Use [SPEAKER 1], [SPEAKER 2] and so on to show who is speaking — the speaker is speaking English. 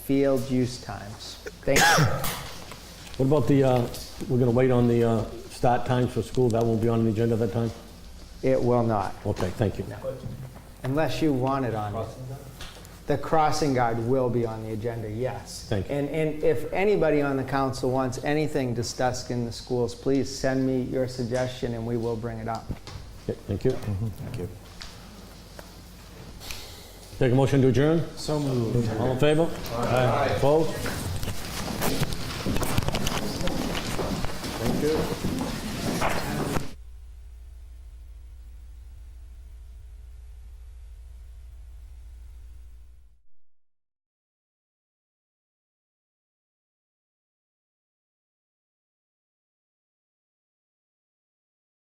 [SPEAKER 1] field use times. Thank you.
[SPEAKER 2] What about the, uh, we're going to wait on the uh, start times for school? That won't be on the agenda that time?
[SPEAKER 1] It will not,
[SPEAKER 2] Okay, thank you.
[SPEAKER 1] unless you want it on. The crossing guard will be on the agenda, yes.
[SPEAKER 2] Thank you.
[SPEAKER 1] And, and if anybody on the council wants anything discussed in the schools, please send me your suggestion and we will bring it up.
[SPEAKER 2] Okay, Mm-hmm. Thank you. Take a motion to adjourn? So moved. All in favor? Aye. Opposed?
[SPEAKER 3] Thank you.